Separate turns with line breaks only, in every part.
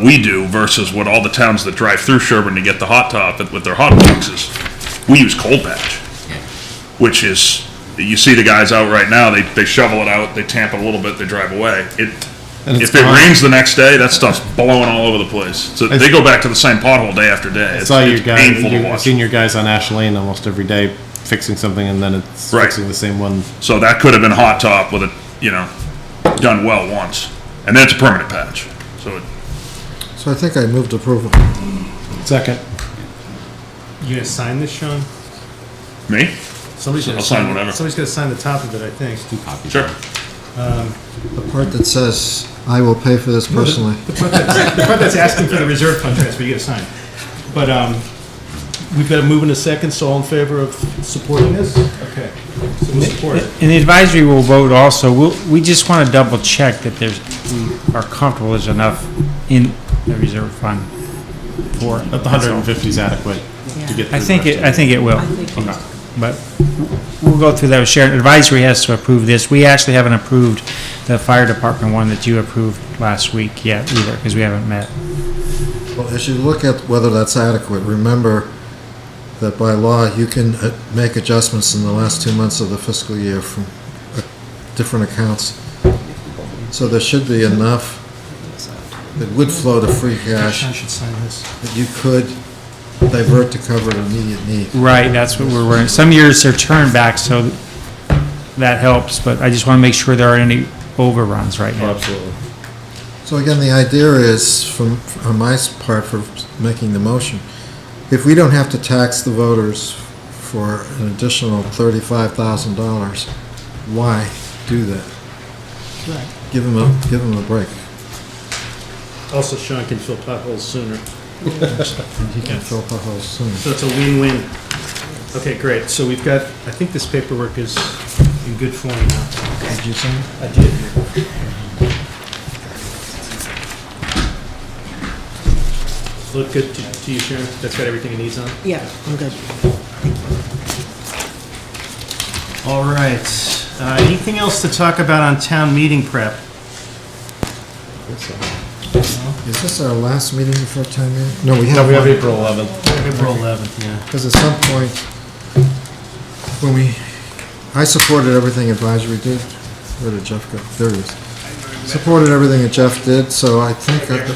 we do versus what all the towns that drive through Sherburne to get the hot top with their hot boxes, we use cold patch, which is, you see the guys out right now, they, they shovel it out, they tamp it a little bit, they drive away. It,
And it's
if it
gone.
rains the next day, that stuff's blowing all over the place. So they go back to the same pothole day after day.
I
It's,
saw your
it's
guy,
painful to
your
watch.
senior guys on Ash Lane almost every day fixing something, and then it's
Right.
fixing the same one.
So that could have been hot top with it, you know, done well once. And then it's a permanent patch. So it-
So I think I moved approval.
Second,
You gonna sign this, Sean?
me?
Somebody's gonna
I'll sign
sign.
whatever.
Somebody's gonna sign the top of it, I think.
Sure.
The part that says, "I will pay for this personally."
The part that's, the part that's asking for the reserve fund transfer, you gotta sign. But, um, we've got a move in a second, so all in favor of supporting this? Okay, so we'll support it.
And the advisory will vote also, we'll, we just want to double check that there's, we are comfortable there's enough in the reserve fund for it.
that the 150 is adequate to get.
I
through
think
the
it,
rest
I think it will.
of it.
But we'll go through that with Sharon. Advisory has to approve this. We actually haven't approved the fire department one that you approved last week yet either, because we haven't met.
Well, as you look at whether that's adequate, remember that by law, you can uh, make adjustments in the last two months of the fiscal year from uh, different accounts. So there should be enough that would flow to free cash
Sean should sign this.
that you could divert to cover an immediate need.
Right, that's what we're worried. Some years they're turned back, so that helps, but I just want to make sure there aren't any overruns right now.
Absolutely.
So again, the idea is, from, on my s- part for making the motion, if we don't have to tax the voters for an additional thirty-five thousand dollars, why do that? Give them a, give them a break.
Also, Sean can fill potholes sooner, so
And he can fill the hole soon.
it's a win-win. Okay, great, so we've got, I think this paperwork is in good form now.
Did you say?
I did. Look good to to you, Sharon? That's got everything it needs on?
Yeah, I'm good.
All right. Uh, Anything else to talk about on town meeting prep?
Is this our last meeting before town meeting? No, we
No,
have
we have
one,
April 11th.
April 11th, yeah.
because at some point, when we, I supported everything advisory did. Where did Jeff go? There he is. Supported everything that Jeff did, so I think that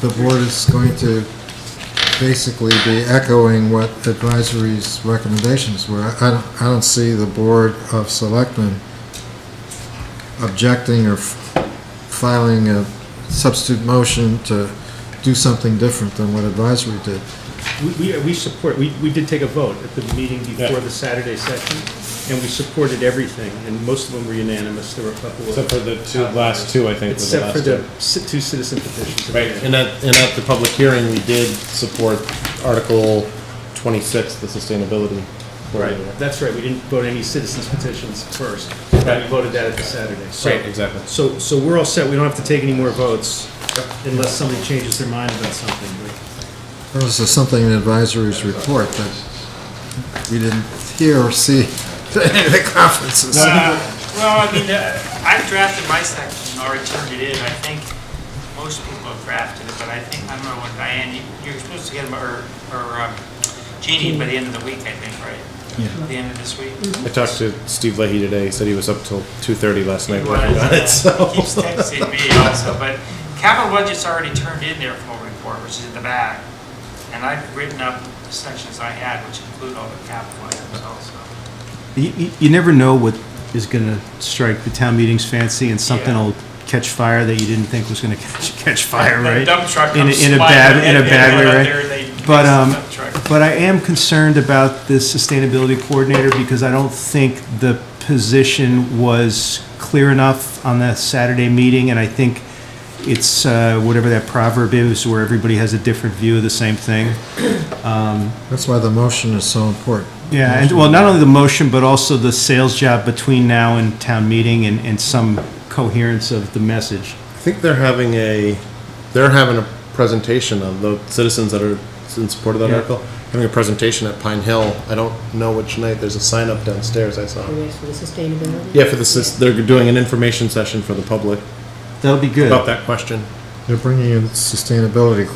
the the board is going to basically be echoing what advisory's recommendations were. I- I don't, I don't see the Board of Selectmen objecting or f- filing a substitute motion to do something different than what advisory did.
We- We, we support, we, we did take a vote at the meeting before the Saturday session, and we supported everything, and most of them were unanimous. There were a couple
Except
of,
for the two, last two, I think, were the
except for
last
the
two.
ci- two citizen petitions.
Right, and at, and at the public hearing, we did support Article 26, the sustainability.
Right, that's right. We didn't vote any citizens petitions first. We
Right.
voted that at the Saturday. So-
Right, exactly.
So, so we're all set. We don't have to take any more votes unless somebody changes their mind about something. but-
There was something in advisory's report that we didn't hear or see at any of the conferences.
Well, I mean, uh, I've drafted my section and already turned it in. I think most people have drafted it, but I think, I don't know when Diane, you- you're supposed to get them, or, or um, Jeannie by the end of the week, I think, right? Yeah. The end of this week?
I talked to Steve Leahy today, he said he was up till 2:30 last night
He
working on it,
was, uh,
so.
Keeps texting me also, but capital budget's already turned in their full report, which is in the back. And I've written up the sections I had, which include all the capital items also.
You- You, you never know what is going to strike the town meeting's fancy, and something
Yeah.
will catch fire that you didn't think was going to catch, catch fire,
The
right?
dump truck
In a-
comes
in a
sliding
bad-
in,
in a
they
bad
go
way,
out
right?
there and they
But,
fix the
um,
dump truck.
but I am concerned about the sustainability coordinator because I don't think the position was clear enough on that Saturday meeting, and I think it's uh, whatever that proverb is, where everybody has a different view of the same thing.
That's why the motion is so important.
Yeah, and, well, not only the motion, but also the sales job between now and town meeting and, and some coherence of the message.
I think they're having a, they're having a presentation of the citizens that are in support of that
Yeah.
article, having a presentation at Pine Hill. I don't know which night, there's a sign up downstairs I saw.
Anyways, for the sustainability?
Yeah, for this, they're doing an information session for the public
That'll be good.
about that question.
They're bringing in sustainability